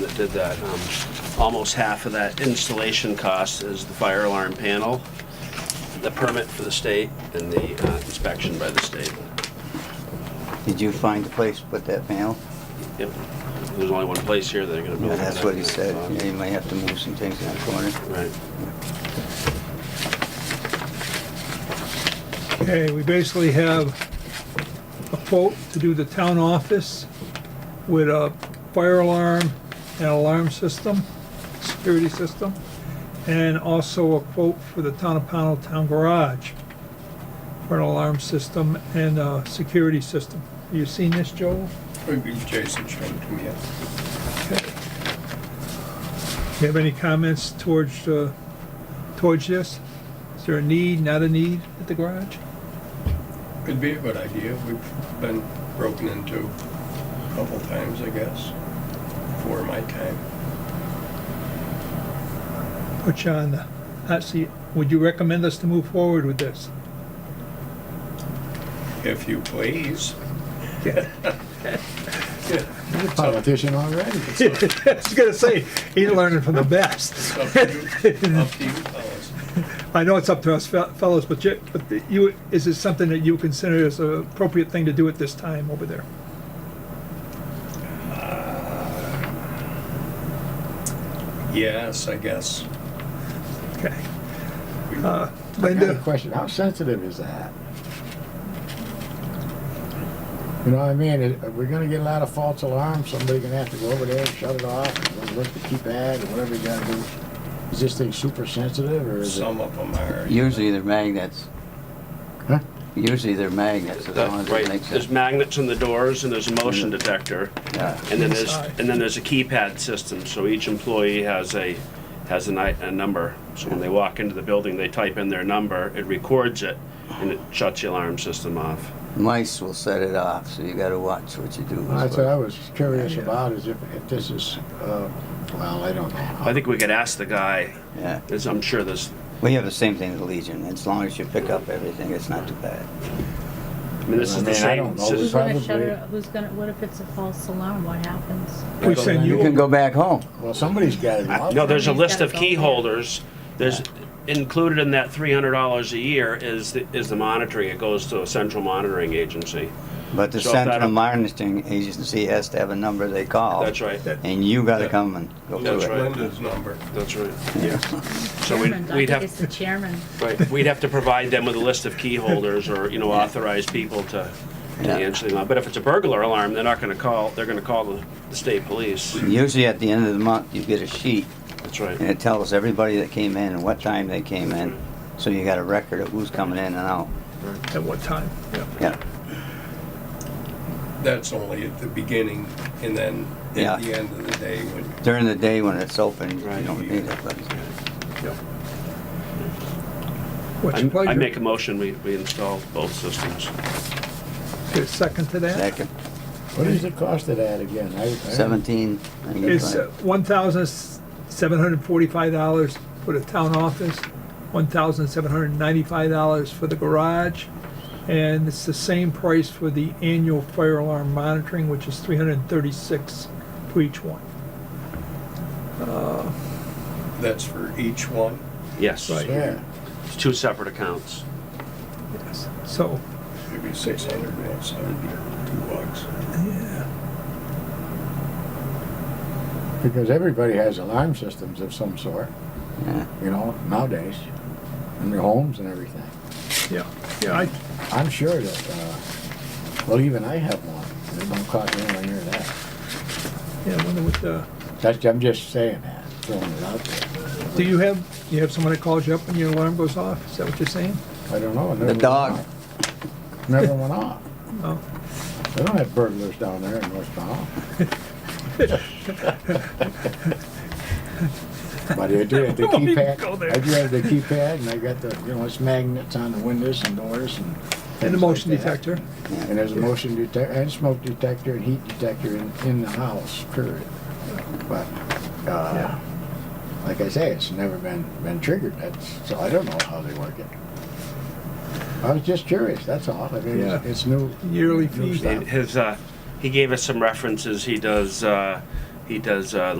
did that. Um, Almost half of that installation cost is the fire alarm panel, the permit for the state, and the uh, inspection by the state. Did you find a place to put that panel? Yep, there's only one place here that they're gonna build. Yeah, That's what he said. Uh, Yeah, You might have to move some things in the corner. Right. Okay, we basically have a quote to do the town office with a fire alarm and alarm system, security system, and also a quote for the town of Pownell town garage for an alarm system and a security system. You seen this, Joel? Maybe Jason showed it to me. Do you have any comments towards, uh, towards this? Is there a need, not a need at the garage? It'd be a good idea. We've been broken into a couple times, I guess, for my time. Put you on the hot seat. Would you recommend us to move forward with this? If you please. You're a politician already. I was gonna say, he's learning from the best. It's up to you, up to you fellas. I know it's up to us fel- fellows, but you, but you, is it something that you consider as an appropriate thing to do at this time over there? Uh, Yes, I guess. Okay. We- Uh, I got a Linda, question. How sensitive is that? You know what I mean? It- We're gonna get a lot of false alarms. Somebody gonna have to go over there and shut it off, or look to keep that, or whatever you gotta do. Is this thing super sensitive, or is it? Some of them are. Usually they're magnets. Huh? Usually they're magnets, as long as it Right, makes there's it. magnets on the doors, and there's a motion detector. Yeah. And then there's, Inside. and then there's a keypad system, so each employee has a, has a ni- a number. So when they walk into the building, they type in their number, it records it, and it shuts the alarm system off. Mice will set it off, so you gotta watch what you do. That's what I was curious about, is if, if this is, uh, well, I don't know. I think we could ask the guy, Yeah. there's- I'm sure there's, We have the same thing with Legion. As long as you pick up everything, it's not too bad. I mean, this is I the mean, I same. don't know. this It's is- like- Who's gonna Probably. shut it, who's gonna, what if it's a false alarm, what happens? we send You can you, go back home. Well, somebody's gotta go out. uh, No, there's a Somebody's list gotta of go key there. holders, there's, included in that three hundred dollars a year is, the- is the monitoring, it goes to a central monitoring agency. But the So if that- central monitoring agency has to have a number they call. That's right, And you gotta come and go That's through it. right. Linda's number. that's right. So we'd, Chairman, I we'd think have. it's the chairman. Right, we'd have to provide them with a list of key holders or, you know, authorized people to, to Yeah. answer the alarm. But if it's a burglar alarm, they're not gonna call, they're gonna call the, the state police. Usually at the end of the month, you get a sheet That's right. and it tells everybody that came in and what time they came in. So you got a record of who's coming in and out. at what time? Yeah. Yeah, That's only at the beginning and then Yeah. at the end of the day when during the day when it's open, you Right. don't need it, but What's your I I pleasure? make a motion, we, we install both systems. Get a second to that? second, What is the cost of that again? I- I don't- seventeen. I think It's uh, it's like- one thousand seven hundred forty-five dollars for the town office, one thousand seven hundred ninety-five dollars for the garage, and it's the same price for the annual fire alarm monitoring, which is three hundred and thirty-six for each one. that's for each one. Yes, Right. Yeah. it's two separate accounts. Yes. So, It'd be six hundred and seventy, two bucks. Because everybody has alarm systems of some sort, yeah. you know, nowadays, in their homes and everything. yeah, yeah, I, I'm sure that, uh, well, even I have one. It don't cost anywhere near that. yeah, I wonder what the, That's, I'm just saying that, throwing it out there. do you have, you have someone that calls you up when your alarm goes off? Is that what you're saying? I don't know. it never The went dog. off. Never went off. No? They don't have burglars down there in North Pownell. But I do have the Don't even Oh, go keypad, there. I do have the keypad and I got the, you know, it's magnets on the windows and doors and. And the things motion like that. detector? And there's a motion detector, and smoke detector, and heat detector in, in the house, period. But, uh, like I say, it's never been, been triggered, that's, so I don't know how they work it. I was just curious, that's all, I mean, it's- Yeah. it's new. Yearly new fee. stuff. His, uh, he gave us some references, he does, uh, he does, uh,